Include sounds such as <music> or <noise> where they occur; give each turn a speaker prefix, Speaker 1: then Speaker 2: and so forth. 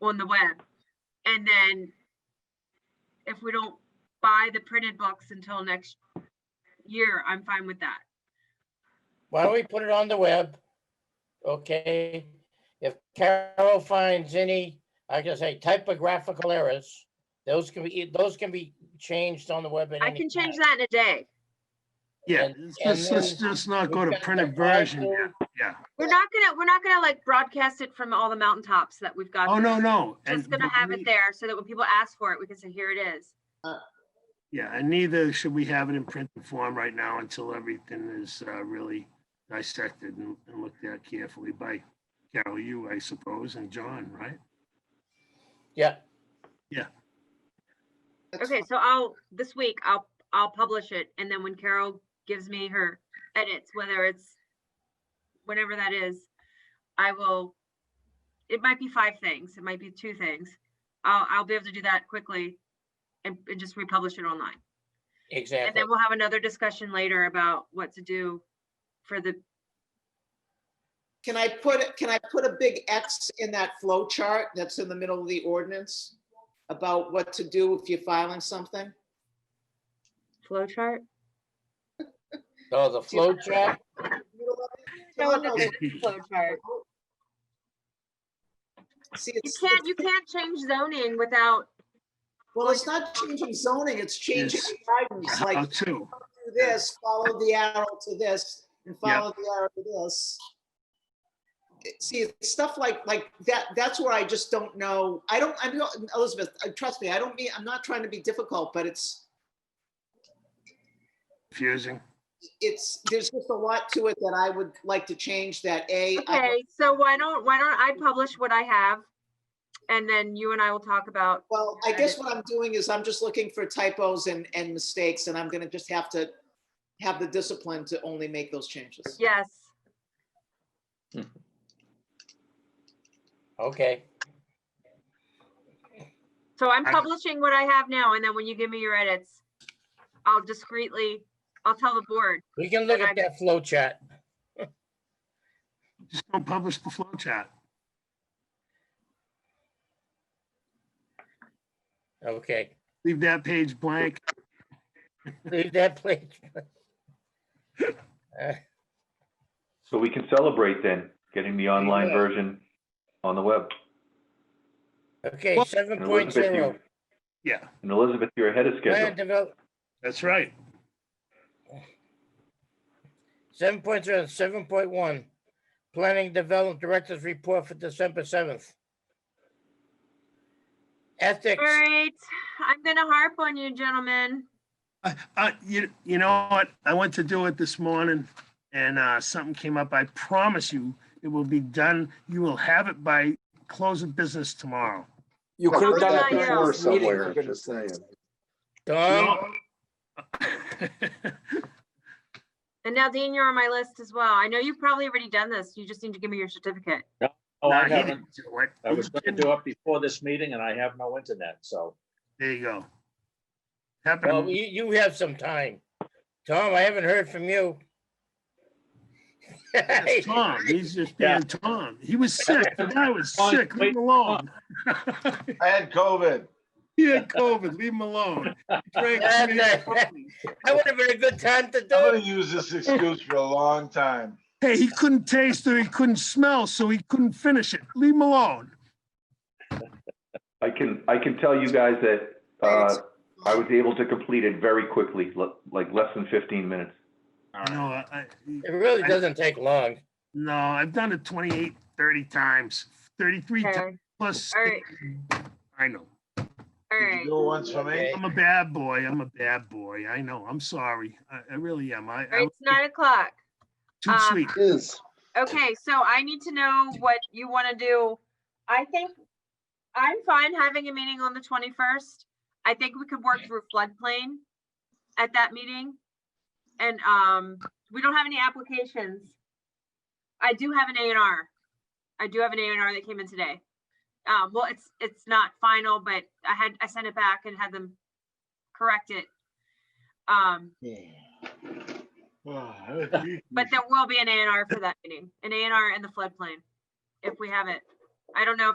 Speaker 1: on the web. And then if we don't buy the printed books until next year, I'm fine with that.
Speaker 2: Why don't we put it on the web? Okay, if Carol finds any, I can say typographical errors, those can be, those can be changed on the web. at
Speaker 1: I
Speaker 2: any
Speaker 1: can change that
Speaker 2: time.
Speaker 1: in a day.
Speaker 3: Yeah,
Speaker 2: And-
Speaker 3: let's
Speaker 2: and
Speaker 3: just- let's
Speaker 2: then
Speaker 3: just not go
Speaker 2: we've
Speaker 3: to
Speaker 2: got
Speaker 3: printed
Speaker 2: apply
Speaker 3: version.
Speaker 2: to-
Speaker 3: now. Yeah.
Speaker 1: We're not gonna, we're not gonna like broadcast it from all the mountaintops that we've got.
Speaker 3: Oh, no, no.
Speaker 1: Just
Speaker 3: and-
Speaker 1: gonna have it there so that when people ask for it, we can say, here it is.
Speaker 3: Yeah, and neither should we have it in printed form right now until everything is uh, really dissected and and looked at carefully by Carol, you, I suppose, and John, right?
Speaker 2: Yeah,
Speaker 4: That's
Speaker 1: Okay, so I'll, this week, I'll, I'll publish it, and then when Carol gives me her edits, whether it's whenever that is, I will, it might be five things, it might be two things. I'll, I'll be able to do that quickly and, and just republish it online. And
Speaker 2: exactly.
Speaker 1: then we'll have another discussion later about what to do for the,
Speaker 4: Can I put, can I put a big X in that flow chart that's in the middle of the ordinance? About what to do if you're filing something?
Speaker 1: flow chart.
Speaker 2: So Oh, the flow chart,
Speaker 4: No, no, no.
Speaker 1: <laughs> Flow chart.
Speaker 4: See,
Speaker 1: You
Speaker 4: it's,
Speaker 1: can't, you can't change zoning without,
Speaker 4: well, it's not changing zoning, it's changing
Speaker 3: Yes. Uh-huh.
Speaker 4: guidance, like
Speaker 3: How
Speaker 4: do
Speaker 3: to,
Speaker 4: this, follow the arrow to this, and follow the arrow to this. It- See, it's stuff like, like that, that's where I just don't know, I don't, I'm, not- Elizabeth, uh, trust me, I don't mean, I'm not trying to be difficult, but it's,
Speaker 3: confusing.
Speaker 4: it's, there's just a lot to it that I would like to change that A, I-
Speaker 1: okay, so why don't, why don't I publish what I have? And then you and I will talk about
Speaker 4: well, I guess what I'm doing is I'm just looking for typos and, and mistakes, and I'm gonna just have to have the discipline to only make those changes.
Speaker 1: Yes,
Speaker 2: okay,
Speaker 1: so I'm
Speaker 3: I-
Speaker 1: publishing what I have now, and then when you give me your edits, I'll discreetly, I'll tell the board,
Speaker 2: we can look at that flow chart.
Speaker 3: Just don't publish the flow chart.
Speaker 2: Okay,
Speaker 3: Leave that page blank.
Speaker 2: leave that <laughs> place. Uh,
Speaker 5: So we can celebrate then, getting the online
Speaker 2: Yeah.
Speaker 5: version on the web.
Speaker 2: Okay,
Speaker 3: Well-
Speaker 2: seven
Speaker 5: And
Speaker 2: point
Speaker 5: Elizabeth,
Speaker 2: zero,
Speaker 5: you-
Speaker 3: Yeah,
Speaker 5: And Elizabeth, you're ahead of
Speaker 2: plan
Speaker 5: schedule.
Speaker 2: develop,
Speaker 3: that's right.
Speaker 2: seven point zero, seven point one. Planning Development Director's Report for December seventh. Ethics.
Speaker 1: all right, I'm gonna harp on you gentlemen.
Speaker 3: I, I, you, you know what? I went to do it this morning and, uh, something came up. I promise you, it will be done. You will have it by close of business tomorrow.
Speaker 6: You
Speaker 1: Well,
Speaker 6: could have done
Speaker 1: how
Speaker 6: it
Speaker 1: about
Speaker 6: before
Speaker 1: you?
Speaker 6: this meeting, for
Speaker 7: Somewhere,
Speaker 6: goodness
Speaker 7: just
Speaker 6: sake.
Speaker 7: saying.
Speaker 2: Tom,
Speaker 1: And now Dean, you're on my list as well. I know you've probably already done this, you just need to give me your certificate.
Speaker 8: <laughs> Oh,
Speaker 3: Nah,
Speaker 8: I
Speaker 3: he
Speaker 8: haven't.
Speaker 3: didn't do it.
Speaker 8: I was going to do it before this meeting and I have no internet, so.
Speaker 3: There you go. Happened.
Speaker 2: well, you, you have some time. Tom, I haven't heard from you. <laughs>
Speaker 3: That's Tom, he's just
Speaker 8: Yeah.
Speaker 3: being Tom. He was sick. The guy was
Speaker 8: Tom,
Speaker 3: sick. Leave
Speaker 8: wait,
Speaker 3: him alone.
Speaker 7: I had COVID.
Speaker 3: He had COVID. Leave him alone. He drank
Speaker 2: That's
Speaker 3: too
Speaker 2: it.
Speaker 3: much coffee.
Speaker 2: That would have been a good time to do
Speaker 7: I'm
Speaker 2: it.
Speaker 7: gonna use this excuse for a long time.
Speaker 3: Hey, he couldn't taste or he couldn't smell, so he couldn't finish it. Leave him alone.
Speaker 5: I can, I can tell you guys that, uh, I was able to complete it very quickly, le- like less than fifteen minutes.
Speaker 3: No, I, I-
Speaker 2: It really doesn't take long.
Speaker 3: no, I've done it 28, 30 times, 33 times
Speaker 1: Okay,
Speaker 3: plus.
Speaker 1: all right,
Speaker 3: I know.
Speaker 1: all
Speaker 7: Did you
Speaker 1: right.
Speaker 7: do it once for me?
Speaker 2: Okay.
Speaker 3: I'm a bad boy. I'm a bad boy. I know. I'm sorry. I, I really am. I,
Speaker 1: All right,
Speaker 3: I'm
Speaker 1: it's nine o'clock.
Speaker 3: too
Speaker 1: um,
Speaker 3: sweet.
Speaker 6: Is.
Speaker 1: Okay, so I need to know what you want to do. I think I'm fine having a meeting on the 21st. I think we could work through floodplain at that meeting. And um, we don't have any applications. I do have an A and R. I do have an A and R that came in today. Um, well, it's, it's not final, but I had, I sent it back and had them correct it. Um, but there will be an A and R for that meeting, an A and R in the floodplain, if we have it. I don't know if